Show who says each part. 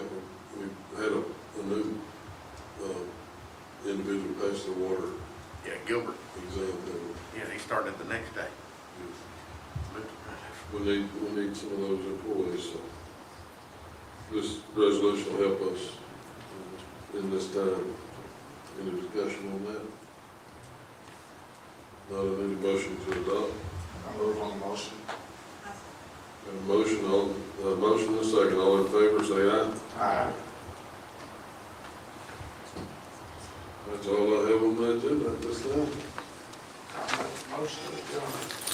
Speaker 1: touched uh, the water,
Speaker 2: Yeah, Gilbert,
Speaker 1: he's on the,
Speaker 2: yeah, he started the next day. But,
Speaker 1: we need, we need some of those employees, so. This resolution will help us in this time. Any discussion on that? Not any motion to adopt?
Speaker 3: I move on the motion.
Speaker 1: Got a motion, all, uh, motion and a second, all in favor, say aye.
Speaker 3: Aye.
Speaker 1: That's all I have on that, too, at this time.
Speaker 3: I make the motion, adjourn.